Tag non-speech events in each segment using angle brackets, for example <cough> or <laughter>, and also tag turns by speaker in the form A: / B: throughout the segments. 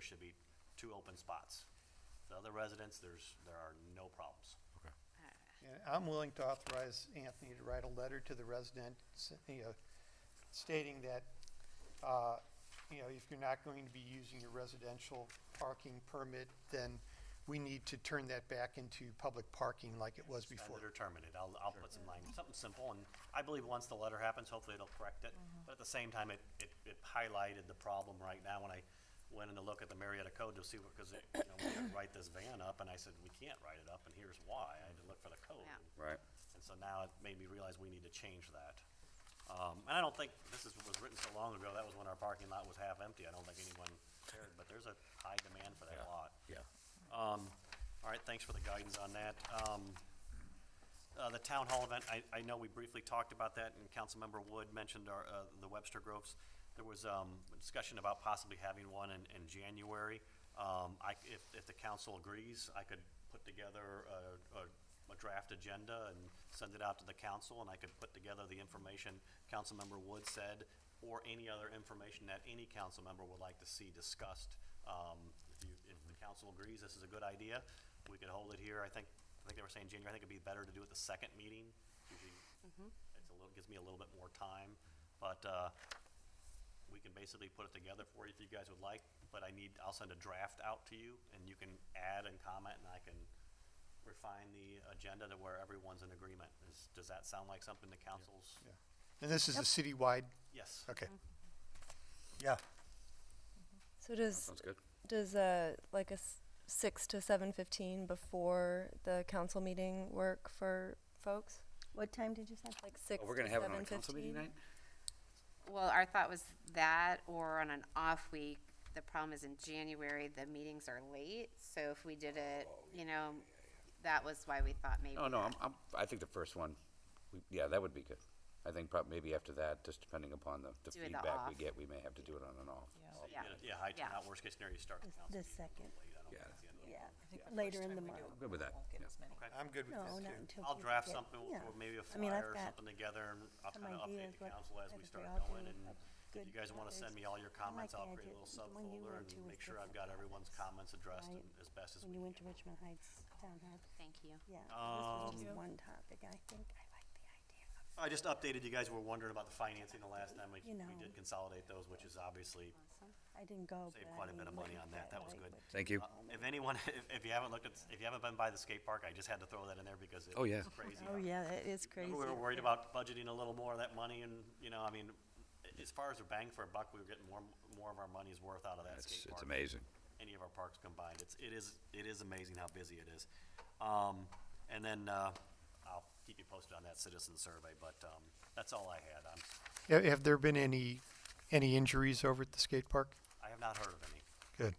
A: should be two open spots. The other residents, there's, there are no problems.
B: Okay.
C: And I'm willing to authorize Anthony to write a letter to the residents, you know, stating that, uh, you know, if you're not going to be using your residential parking permit, then we need to turn that back into public parking like it was
A: And
C: before.
A: that are terminated. I'll, I'll put some language, something simple, and I believe once the letter happens, hopefully it'll correct it. But at the same time, it, it, it highlighted the problem right now when I went in to look at the Marietta code to see, because, you know, we had to write this van up, and I said, we can't write it up, and here's why. I had to look for the code.
D: Yeah.
E: Right.
A: And so now it made me realize we need to change that. Um, and I don't think, this is, was written so long ago, that was when our parking lot was half empty. I don't think anyone cared, but there's a high demand for that lot.
E: Yeah.
A: Um, all right, thanks for the guidance on that. Um, uh, the town hall event, I, I know we briefly talked about that, and Councilmember Wood mentioned our, uh, the Webster Groves. There was, um, a discussion about possibly having one in, in January. Um, I, if, if the council agrees, I could put together a, a, a draft agenda and send it out to the council, and I could put together the information Councilmember Wood said, or any other information that any council member would like to see discussed. Um, if you, if the council agrees this is a good idea, we could hold it here, I think, I think they were saying January, I think it'd be better to do it the second meeting. Usually, It's a little, gives me a little bit more time, but, uh, we can basically put it together for you if you guys would like, but I need, I'll send a draft out to you, and you can add and comment, and I can refine the agenda to where everyone's in agreement. Is, does that sound like something the council's?
C: Yeah. And this is a citywide,
A: Yes.
C: okay. Yeah,
F: So does
E: Sounds good.
F: does uh like a s- six to seven fifteen before the council meeting work for folks?
G: What time did you say?
F: Like six.
E: Oh, we're gonna
F: to
E: have it on a
F: 7:15?
E: council meeting night?
D: Well, our thought was that or on an off week. The problem is in January, the meetings are late. So if we did it, you know, that was why we thought maybe.
E: Oh, no,
D: that-
E: I'm, I'm, I think the first one, we- yeah, that would be good. I think prob, maybe after that, just depending upon the, the
D: Do it the
E: feedback we
D: off.
E: get, we may have to do it on and off.
A: So you
D: Yeah.
A: get it- Yeah, high
D: Yeah.
A: turnout, worst case scenario, you start the
G: The-
A: council
G: the
A: meeting a little
G: second.
A: late. I don't think
E: Yeah.
A: it's the end of the
G: Yeah,
A: world.
G: later in the month.
E: I'm Good with that, yeah.
C: I'm good with
G: No,
C: that
G: not
C: too.
G: until.
A: I'll
G: we
A: draft
G: get-
A: something, we'll-
G: yeah.
A: we'll maybe a
G: I mean, I've
A: flyer or
G: got
A: something together, and I'll
G: some
A: kind of update the
G: ideas what-
A: council as
G: what
A: we
G: if
A: start
G: all do
A: going, and
G: a
A: if you
G: good
A: guys want to
G: others.
A: send me all your
G: I like
A: comments,
G: the
A: I'll create a
G: idea.
A: little
G: The one you
A: subfolder
G: went to
A: and
G: was
A: make sure I've
G: different
A: got
G: than
A: everyone's
G: others,
A: comments addressed
G: right?
A: and as best as we
G: When you
A: can.
G: went to Richmond Heights Town Hall,
D: Thank you.
G: yeah, this
A: Um,
G: was just one topic, I think I like the idea of.
A: I just updated, you guys were wondering about the financing the last time, we,
G: You
A: we
G: know.
A: did consolidate those, which is obviously,
G: I didn't go, but
A: Saved
G: I
A: quite a bit of
G: mean,
A: money
G: look
A: on that.
G: at
A: That was
G: like,
A: good.
G: what-
E: Thank you.
A: uh, if anyone, <laughs> if, if you haven't looked at, if you haven't been by the skate park, I just had to throw that in there because it
E: Oh, yeah.
A: was crazy.
G: Oh, yeah, that is crazy.
A: Remember, we were worried about budgeting a little more of that money and, you know, I mean, a- as far as a bang for a buck, we were getting more, more of our money's worth out of that
E: It's,
A: skate
E: it's
A: park.
E: amazing.
A: Any of our parks combined. It's, it is, it is amazing how busy it is. Um, and then, uh, I'll keep you posted on that citizen survey, but, um, that's all I had. I'm,
C: Have, have there been any, any injuries over at the skate park?
A: I have not heard of any.
C: Good.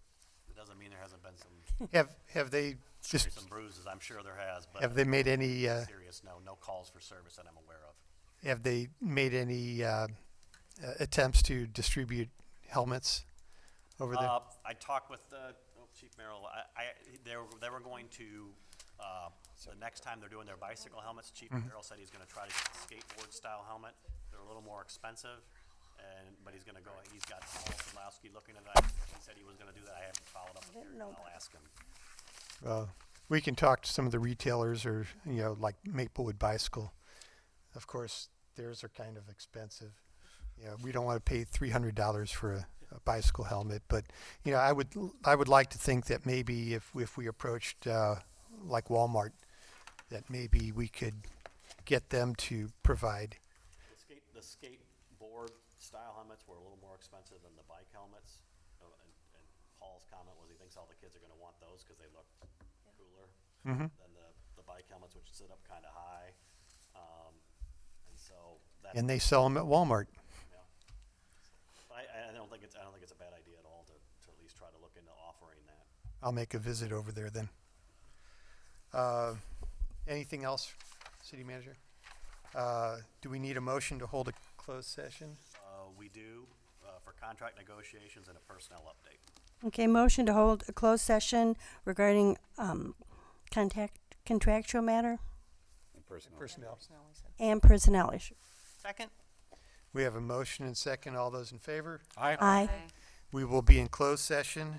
A: It doesn't mean there hasn't been some,
C: Have, have they just, <laughs>
A: some bruises. I'm sure there has, but.
C: have they made any, uh,
A: Serious, no, no calls for service that I'm aware of.
C: Have they made any uh, uh, attempts to distribute helmets over there?
A: Uh, I talked with, uh, oh, Chief Merrill, I, I, they were, they were going to, uh, the next time they're doing their bicycle helmets, Chief
C: Mm-hmm.
A: Merrill said he's gonna try to get a skateboard-style helmet. They're a little more expensive, and, but he's gonna go, he's got Paul Sadlowski looking at that. He said he was gonna do that. I haven't followed up with
G: didn't
A: him.
G: know
A: I'll
G: that.
A: ask him.
C: Uh, we can talk to some of the retailers or, you know, like Maplewood Bicycle. Of course, theirs are kind of expensive. You know, we don't want to pay $300 for a, a bicycle helmet, but, you know, I would, I would like to think that maybe if, if we approached uh, like Walmart, that maybe we could get them to provide
A: The skate, the skateboard-style helmets were a little more expensive than the bike helmets. Uh, And, and Paul's comment was he thinks all the kids are gonna want those, cause they look cooler
C: Mm-hmm.
A: than the, the bike helmets, which sit up kinda high. Um, and so that's,
C: and they sell them at Walmart.
A: yeah. I, I don't think it's, I don't think it's a bad idea at all to, to at least try to look into offering that.
C: I'll make a visit over there then. Uh, Anything else, city manager? Uh, Do we need a motion to hold a closed session?
A: Uh, we do, uh, for contract negotiations and a personnel update.
G: Okay, motion to hold a closed session regarding, um, contact, contractual matter
E: And personal.
C: Personnel.
G: and personnel issue.
H: Second?
C: We have a motion and second. All those in favor?
G: Aye.
D: Bye.
C: We will be in closed session